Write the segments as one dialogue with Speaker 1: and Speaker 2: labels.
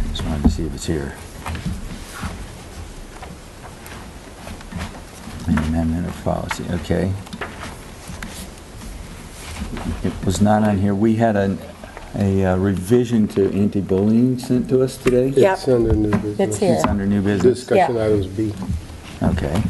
Speaker 1: if it's here. An amendment of policy, okay. It was not on here. We had an- a uh, revision to anti-bullying sent to us today.
Speaker 2: Yep.
Speaker 3: It's under new business.
Speaker 2: It's here.
Speaker 1: It's under new business.
Speaker 3: Discussion
Speaker 2: Yeah.
Speaker 3: items B.
Speaker 1: Okay.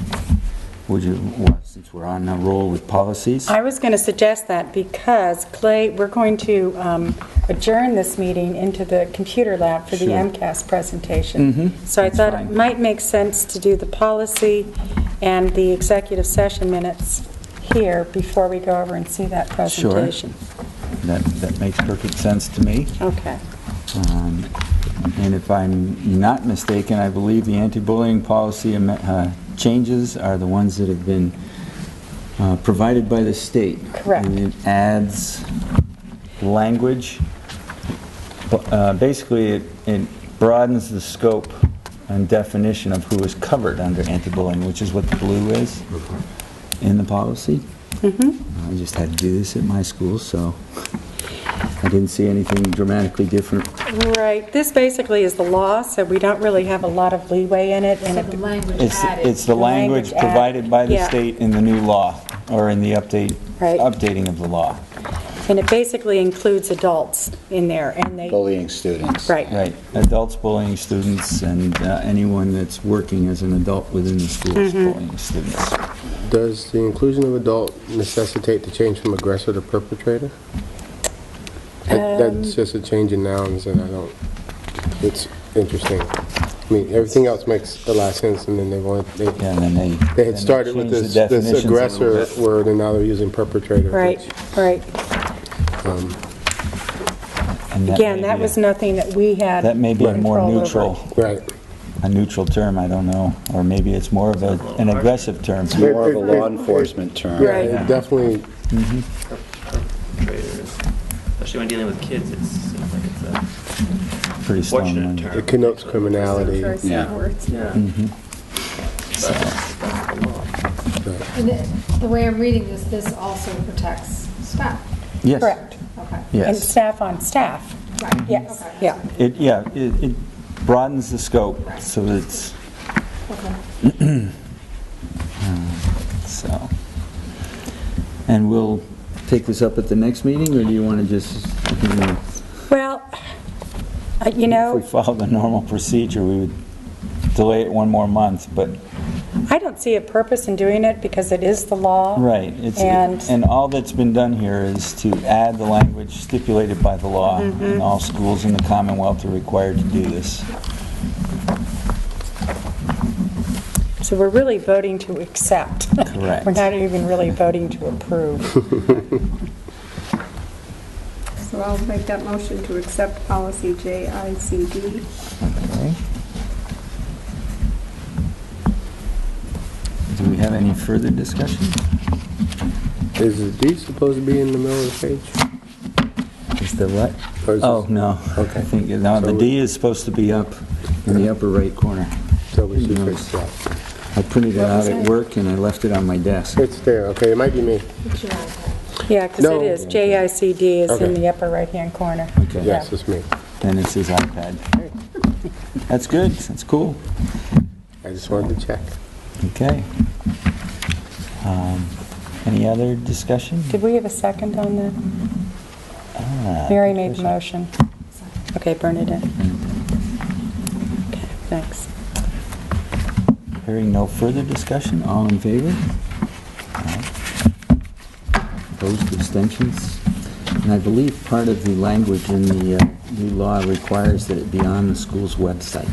Speaker 1: Would you, well, since we're on a roll with policies?
Speaker 2: I was going to suggest that because Clay, we're going to um, adjourn this meeting into the computer lab for the
Speaker 1: Sure. Mm-hmm.
Speaker 2: MCAS presentation. So I
Speaker 1: That's
Speaker 2: thought it
Speaker 1: fine.
Speaker 2: might make sense to do the policy and the executive session minutes here before we go over and see that
Speaker 1: Sure.
Speaker 2: presentation.
Speaker 1: That, that makes perfect sense to me.
Speaker 2: Okay.
Speaker 1: Um, And if I'm not mistaken, I believe the anti-bullying policy am- uh, changes are the ones that have been uh, provided by the state.
Speaker 2: Correct.
Speaker 1: And it adds language. Bu- uh, Basically, it- it broadens the scope and definition of who is covered under anti-bullying, which is what the blue is in the policy. I just had to do this at my school, so I didn't see anything dramatically different
Speaker 2: Right, this basically is the law, so we don't really have a lot of leeway in it. and
Speaker 4: So
Speaker 2: it-
Speaker 4: the language
Speaker 1: It's,
Speaker 4: added.
Speaker 1: it's the
Speaker 2: The language
Speaker 1: language provided
Speaker 2: added,
Speaker 1: by the
Speaker 2: yeah.
Speaker 1: state in the new law, or in the update,
Speaker 2: Right.
Speaker 1: updating of the law.
Speaker 2: And it basically includes adults in there, and they,
Speaker 5: bullying students.
Speaker 2: right,
Speaker 1: Right, adults bullying students and uh, anyone that's working as an adult within the school is
Speaker 2: Mm-hmm.
Speaker 1: bullying students.
Speaker 3: Does the inclusion of adult necessitate the change from aggressor to perpetrator? That-
Speaker 2: Um,
Speaker 3: That's just a change in nouns, and I don't, it's interesting. I mean, everything else makes a lot of sense, and then they wanted, they,
Speaker 1: Yeah, and then they.
Speaker 3: they
Speaker 1: then
Speaker 3: had started with
Speaker 1: changed
Speaker 3: this
Speaker 1: the
Speaker 3: this
Speaker 1: definitions a little
Speaker 3: aggressor
Speaker 1: bit.
Speaker 3: word, and now they're using perpetrator. um,
Speaker 2: right, right.
Speaker 1: And that
Speaker 2: Again,
Speaker 1: may
Speaker 2: that
Speaker 1: be a-
Speaker 2: was nothing that we had.
Speaker 1: That may be a more
Speaker 2: control over.
Speaker 1: neutral,
Speaker 3: which- Right.
Speaker 1: a neutral term, I don't know, or maybe it's more of a- an aggressive term.
Speaker 5: It's more of a
Speaker 3: It- it-
Speaker 5: law
Speaker 3: it-
Speaker 5: enforcement term.
Speaker 3: Yeah,
Speaker 2: Right.
Speaker 3: it definitely,
Speaker 6: perpetrators, especially when dealing with kids, it seems like it's a
Speaker 1: Pretty strong
Speaker 6: fortunate
Speaker 1: language. Mm-hmm.
Speaker 6: term.
Speaker 3: it connotes criminality.
Speaker 5: Yeah.
Speaker 6: Yeah. But that's the law.
Speaker 4: And it- The way I'm reading this, this also protects staff.
Speaker 1: Yes.
Speaker 2: Correct.
Speaker 4: Okay.
Speaker 2: And
Speaker 1: Yes.
Speaker 2: staff on staff,
Speaker 4: Right.
Speaker 2: yes,
Speaker 4: Okay.
Speaker 2: yeah.
Speaker 1: It, yeah, it it broadens the scope, so that it's,
Speaker 4: Okay.
Speaker 1: So, and we'll take this up at the next meeting, or do you want to just, you know,
Speaker 2: Well, uh, you
Speaker 1: if we
Speaker 2: know,
Speaker 1: follow the normal procedure, we would delay it one more month, but,
Speaker 2: I don't see a purpose in doing it because it is the law.
Speaker 1: right. it's
Speaker 2: And-
Speaker 1: And all that's been done here is to add the language stipulated by the law,
Speaker 2: Mm-hmm.
Speaker 1: and all schools in the Commonwealth are required to do this.
Speaker 2: So we're really voting to accept.
Speaker 1: Correct.
Speaker 2: We're not even really voting to approve.
Speaker 7: So I'll make that motion to accept policy JICD.
Speaker 1: Okay. Do we have any further discussion?
Speaker 3: Is the D supposed to be in the middle of the page?
Speaker 1: Is the what?
Speaker 3: Or is
Speaker 1: Oh,
Speaker 3: this-
Speaker 1: no.
Speaker 3: Okay.
Speaker 1: I think, no, the
Speaker 3: So-
Speaker 1: D is supposed to be up in the upper right corner.
Speaker 3: So we should
Speaker 1: No.
Speaker 3: fix that.
Speaker 1: I printed it out at work and I left it on my desk.
Speaker 3: It's there, okay, it might be me.
Speaker 4: Put your eyes out.
Speaker 2: Yeah, because
Speaker 3: No.
Speaker 2: it is, JICD is in
Speaker 3: Okay.
Speaker 2: the upper right-hand corner.
Speaker 1: Okay.
Speaker 2: Yeah.
Speaker 3: Yes, it's me.
Speaker 1: Then it's his iPad. That's good, that's cool.
Speaker 3: I just wanted to check.
Speaker 1: Okay. Um, Any other discussion?
Speaker 2: Did we have a second on that?
Speaker 1: Ah, Uh,
Speaker 2: Mary made the motion. Okay, Bernadette. Okay, thanks.
Speaker 1: Hearing no further discussion, all in favor? Aye. Opposed, abstentions? And I believe part of the language in the uh, new law requires that it be on the school's website.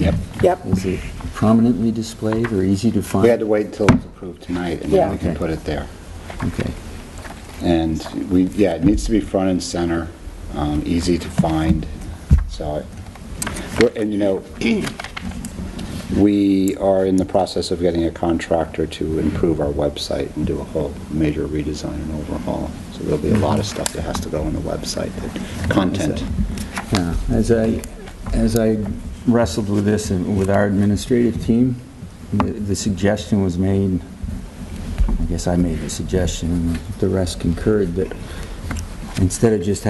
Speaker 5: Yep.
Speaker 2: Yep.
Speaker 1: Is it prominently displayed or easy to find?
Speaker 5: We had to wait until it was approved tonight, and then
Speaker 2: Yeah.
Speaker 5: we can put it there.
Speaker 1: Okay,
Speaker 5: And we, yeah, it needs to be front and center, um, easy to find, so. we're- And, you know, we are in the process of getting a contractor to improve our website and do a whole major redesign and overhaul. So there'll be a lot of stuff that has to go on the website, that- content.
Speaker 1: yeah. Uh, As I, as I wrestled with this and with our administrative team, the the suggestion was made, I guess I made the suggestion, and the rest concurred, that instead of just